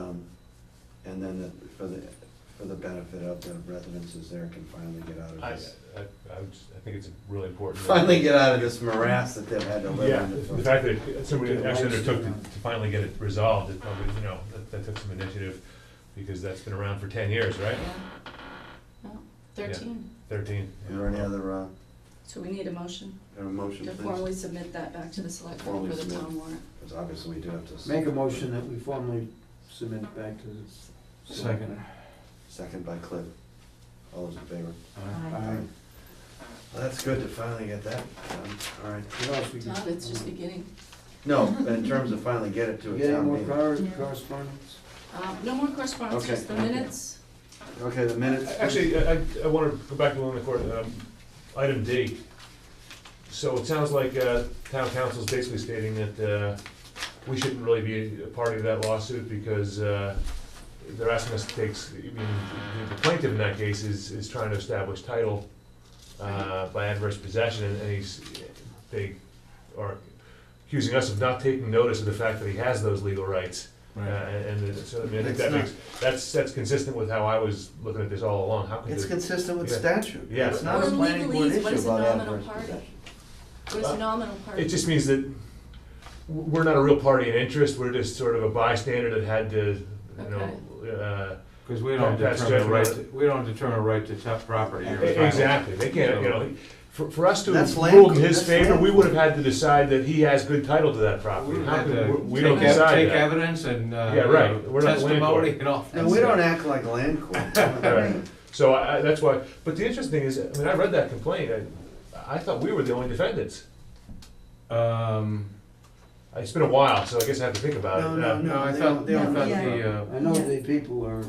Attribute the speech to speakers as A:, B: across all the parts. A: Um, And then the- for the, for the benefit of the residences there can finally get out of
B: I, I,
A: this,
B: I would just- I think it's really important. that-
A: finally get out of this morass that they've had to
B: Yeah,
A: live in.
B: the
A: for-
B: fact that somebody actually undertook to to finally get it resolved, it probably, you know, that, that took some initiative, because that's been around for ten years, right?
C: No, thirteen.
B: Thirteen.
A: Are there any other, uh,
C: So we need a motion
A: other motion,
C: to
A: please?
C: formally submit that back to the select board
A: Formally
C: for the
A: submit.
C: town warrant.
A: Because obviously we do have to.
D: Make a motion that we formally submit back to the.
A: Second. Second by Cliff. All those in favor?
D: Aye.
A: Well, that's good to finally get that done, all right.
D: What else we
C: Todd,
D: got?
C: it's just beginning.
A: No, but in terms of finally get it to a
D: Get any
A: town
D: more
A: meeting.
D: cor-
C: Yeah.
D: correspondence?
C: Um, no more correspondence,
A: Okay.
C: just the minutes.
A: Okay, the minutes.
B: Actually, I, I- I wanna go back to one of the court, um, item D. So it sounds like, uh, town council's basically stating that, uh, we shouldn't really be a party to that lawsuit because, uh, they're asking us to take, s- I mean, the- the plaintiff in that case is, is trying to establish title, uh, by adverse possession, and he's, they are accusing us of not taking notice of the fact that he has those legal rights. Uh, and, and so, I mean, I think
A: It's
B: that
A: not-
B: makes, that's, that's consistent with how I was looking at this all along, how could
A: It's
B: the-
A: consistent with
B: Yeah.
A: statute.
B: Yeah.
A: It's not a
C: Well,
A: planning board
C: legalese,
A: issue
C: what is a
A: about
C: nominal
A: adverse
C: party?
A: possession.
C: What is
B: Uh,
C: the nominal part?
B: It just means that w- we're not a real party in interest, we're just sort of a bystander that had to, you know, uh,
E: Because we don't
B: That's
E: determine the right,
B: definitely-
E: to- we don't determine a right to t- property. or title.
B: uh, e, exactly, they can't, you know, for, for us to
A: That's land-
B: rule in his
A: that's
B: favor, we
A: land.
B: would have had to decide that he has good title to that
E: We
B: property.
E: don't
B: How
E: have
B: could-
E: to
B: we- We
E: uh, take
B: don't
E: ev-
B: decide
E: Take
B: that.
E: evidence and, uh,
B: Yeah,
E: you
B: right.
E: know,
B: We're not the landlord.
E: testimony and all that
A: No, we don't
E: stuff.
A: act like land court.
B: Right. So I, I, that's why, but the interesting thing is, I mean, I read that complaint, I, I thought we were the only defendants.
E: Um,
B: It's been a while, so I guess I have to think about it.
A: No,
B: Uh,
A: no,
E: no,
A: no.
E: I
A: they
E: thought,
A: don't-
E: I
A: they
E: thought
A: don't-
E: the, uh,
D: I know
F: Yeah.
D: the people are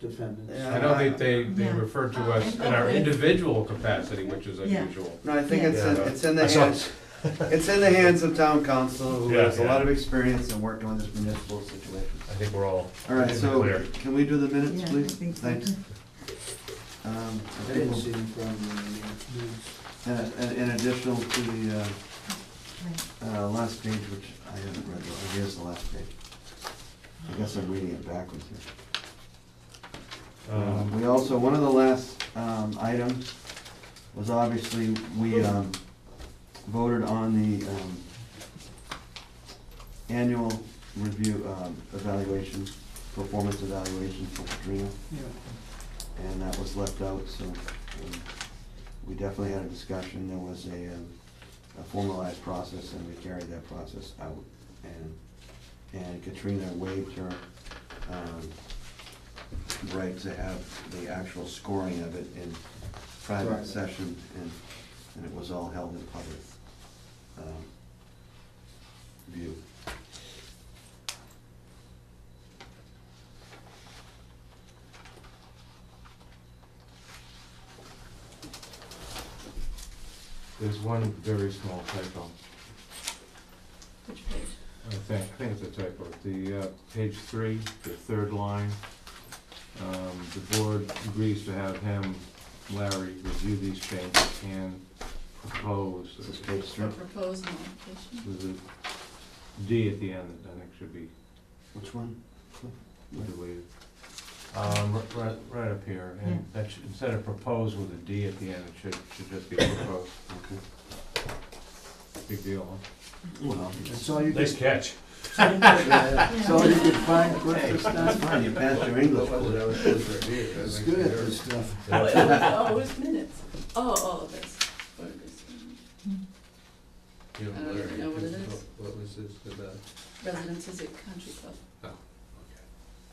D: defendants.
A: Yeah.
E: I don't think they, they
F: Yeah.
E: referred to us in our individual capacity, which is unusual.
A: No, I think it's, in-
B: Yeah.
A: it's in
B: I
A: the
B: saw-
A: hands, it's in the hands of town council, who
B: Yeah,
A: has a
B: yeah.
A: lot of experience in working with this municipal situation.
B: I think we're all.
A: All right, so
B: Clear.
A: can we do the minutes,
F: Yeah, I
A: please?
F: think so.
A: Thanks. Um,
D: I didn't see them from the news.
A: and- and In addition to the uh,
F: Right.
A: uh, last page, which I haven't read, though. here's the last page. I guess I'm reading it backwards here. Um,
E: Um,
A: We also, one of the last um, items was obviously, we um, voted on the um, annual review um, evaluation, performance evaluation for Katrina, and that was left out, so um, we definitely had a discussion. There was a um, a formalized process, and we carried that process out. And and Katrina waived her um, right to have the actual scoring of it in private
D: Private.
A: session, and, and it was all held in public um, view.
E: There's one very small typo,
C: Which page?
E: I think, I think it's a typo. The, uh, page three, the third line, um, the board agrees to have him, Larry, review these changes and propose.
A: This is page
C: The
A: three.
C: proposed modification.
E: There's a D at the end that I think should be
A: Which one?
E: deleted. Um, r- right, right up here, and that should, instead of propose with a D at the end, it should, should just be proposed.
A: Okay.
E: Big deal, huh?
A: Well,
D: That's all you
B: Nice
D: could,
B: catch.
D: that's all you could find, Chris,
A: hey,
D: this
A: that's
D: time.
A: fine, you passed your English. It's
D: It's good at this stuff.
C: Oh, it was, oh, it was minutes. Oh, all of this. What it is. I don't even know what it is.
E: What was this about?
C: Residences at Country Club.
B: Oh,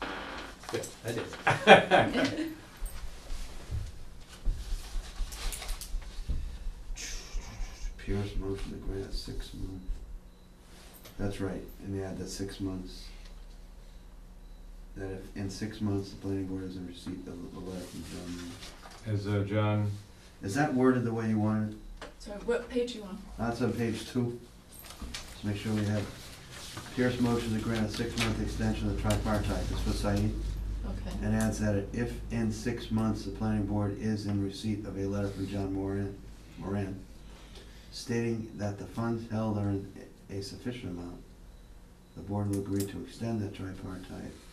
E: I did.
A: Pierce moved to the grant, six months. That's right, and they add that six months. That if, in six months, the planning board hasn't received a, a letter from John. Muir.
E: Is, uh, John,
A: Is that worded the way you wanted?
C: Sorry, what page you on?
A: That's on page two. Let's make sure we have, Pierce motion to grant a six-month extension of the tripartite, this was Said,
C: Okay.
A: and adds that if in six months, the planning board is in receipt of a letter from John Moran, Moran, stating that the funds held are in a sufficient amount, the board will agree to extend that tripartite